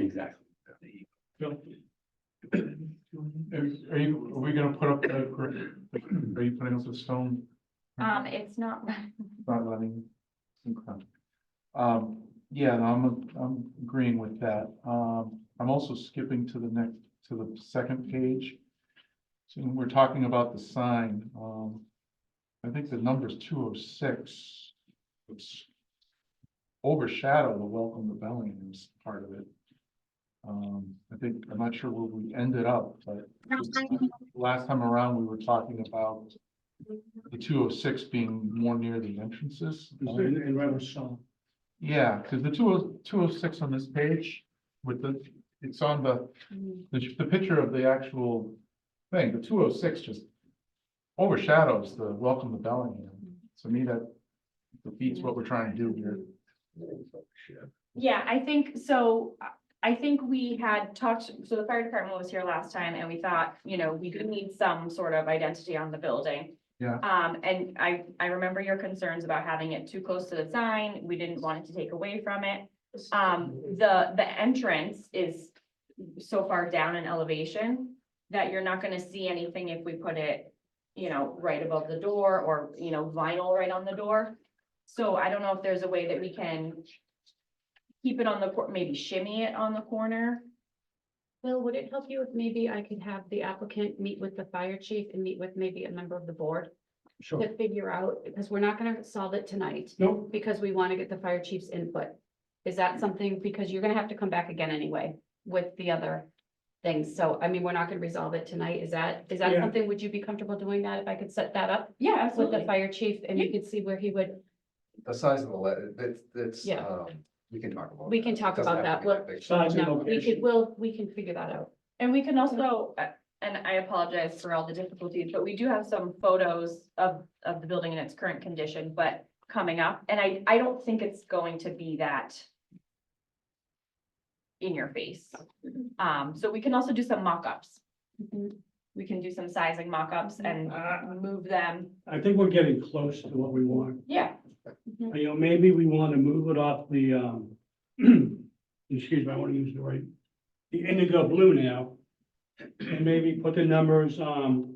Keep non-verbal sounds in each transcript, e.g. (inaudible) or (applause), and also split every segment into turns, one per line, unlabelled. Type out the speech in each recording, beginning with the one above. Exactly.
Bill? Are are you, are we gonna put up the, gr- are you putting up the stone? Mm-hmm.
Um, it's not, (laughs)
Not letting. okay. Um, yeah, and I'm, I'm agreeing with that. Um, I'm also skipping to the next, to the second page. So when we're talking about the sign, um, I think the number's two oh six. It's overshadow the welcome to Bellingham's part of it. Um, I think, I'm not sure where we ended up, but last time around, we were talking about the two oh six being more near the entrances.
And right with Sean.
Yeah, because the two oh, two oh six on this page with the, it's on the, the, the picture of the actual thing, the two oh six just overshadows the welcome to Bellingham. To me, that defeats what we're trying to do here.
yeah, I think, so uh, I think we had talked, so the fire department was here last time and we thought, you know, we do need some sort of identity on the building.
Yeah.
Um, and I, I remember your concerns about having it too close to the sign. We didn't want it to take away from it. Um, the, the entrance is so far down in elevation that you're not gonna see anything if we put it, you know, right above the door or, you know, vinyl right on the door. So I don't know if there's a way that we can keep it on the, cor- maybe shimmy it on the corner.
Well, would it help you if maybe I could have the applicant meet with the fire chief and meet with maybe a member of the board
Sure.
to figure out, because we're not gonna solve it tonight,
Nope,
because we wanna get the fire chief's input. Is that something, because you're gonna have to come back again anyway with the other things, so, I mean, we're not gonna resolve it tonight, is that, is that
Yeah.
something, would you be comfortable doing that if I could set that up
Yeah,
with the fire chief and you could see where he would,
The size of the letter, that's, that's,
Yeah.
um, we can talk about.
We can talk
Doesn't
about
have to
that.
be big.
size and
no, we could,
location.
we'll, we can figure that out.
And we can also, uh, and I apologize for all the difficulties, but we do have some photos of, of the building in its current condition, but coming up, and I, I don't think it's going to be that in your face. Um, so we can also do some mock-ups. We can do some sizing mock-ups and uh,
I,
move them.
Uh, I think we're getting close to what we want. Uh,
Yeah,
You know, maybe we want to move it off the, um, (clears throat) excuse me, I want to use the right, the indigo blue now. And maybe put the numbers, um,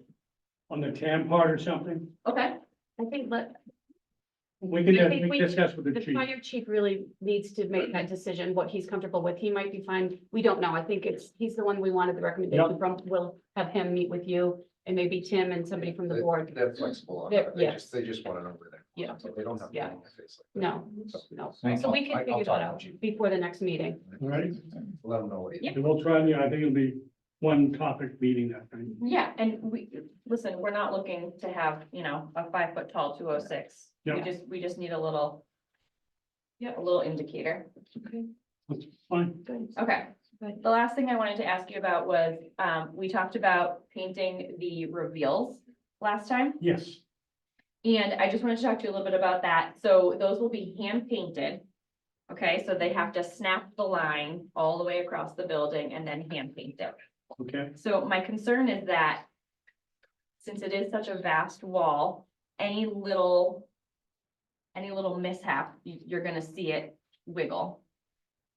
on the tan part or something.
okay.
I think let,
We can,
I think
we
we-
can discuss with the
The
chief.
fire chief really needs to make that decision, what he's comfortable with. He might be fine. We don't know. I think it's, he's the one we wanted the recommendation from. We'll have him meet with you and maybe Tim and somebody from the
They-
board.
They're flexible on
They're-
that, they
yeah.
just, they just want to know where they're.
Yeah.
So they don't have. to
Yeah.
be in my face like that.
No, no.
Thank
So we
I-
can
I'll
figure
talk to
that out
Chief.
before the next meeting.
All right,
Let them know what it is.
Yeah.
and we'll try, and, you know, I think it'll be one topic meeting that night.
Yeah, and we, listen, we're not looking to have, you know, a five foot tall two oh six. We
Yeah.
just, we just need a little. Yeah, a little indicator.
Fine,
Good.
Okay,
Good.
the last thing I wanted to ask you about was, um, we talked about painting the reveals last time.
yes,
And I just wanted to talk to you a little bit about that. So those will be hand painted. Okay, so they have to snap the line all the way across the building and then hand paint it.
okay,
So my concern is that since it is such a vast wall, any little, any little mishap, you, you're gonna see it wiggle.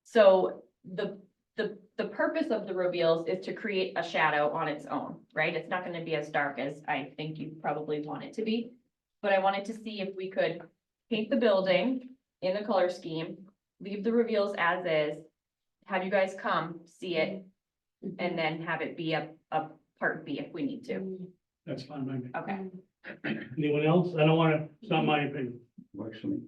So the, the, the purpose of the reveals is to create a shadow on its own, right? It's not gonna be as dark as I think you probably want it to be. But I wanted to see if we could paint the building in the color scheme, leave the reveals as is, have you guys come, see it, and then have it be a, a part B if we need to.
that's fine by me.
Okay,
(clears throat) Anyone else? I don't want to, it's not my opinion.
Works for me.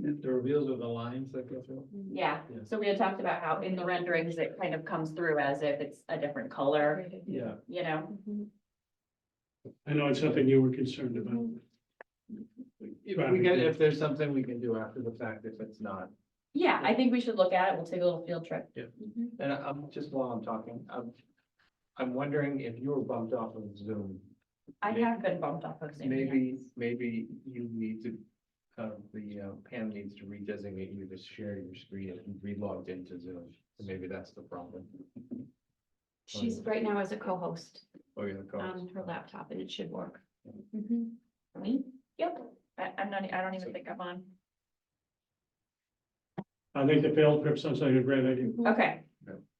The reveals of the lines that go through.
Mm-hmm.
yeah,
Yeah.
so we had talked about how in the renderings, it kind of comes through as if it's a different color,
Yeah.
you know?
I know it's something you were concerned about.
If we get, if there's something we can do after the fact, if it's not,
Yeah, I think we should look at it, we'll take a little field trip.
and I- I'm just while I'm talking, I'm. I'm wondering if you were bumped off of Zoom,
I have been bumped off of Zoom.
maybe, maybe you need to. Uh, the uh, Pam needs to redesignate you to share your screen and re-logged into Zoom, and maybe that's the problem.
She's right now as a co-host
Or you're
on her laptop and it should work. Mm-hmm.
Me? Yep, I, I'm not, e, I don't even think I'm on.
I think the field trip sounds like a great idea.
Okay,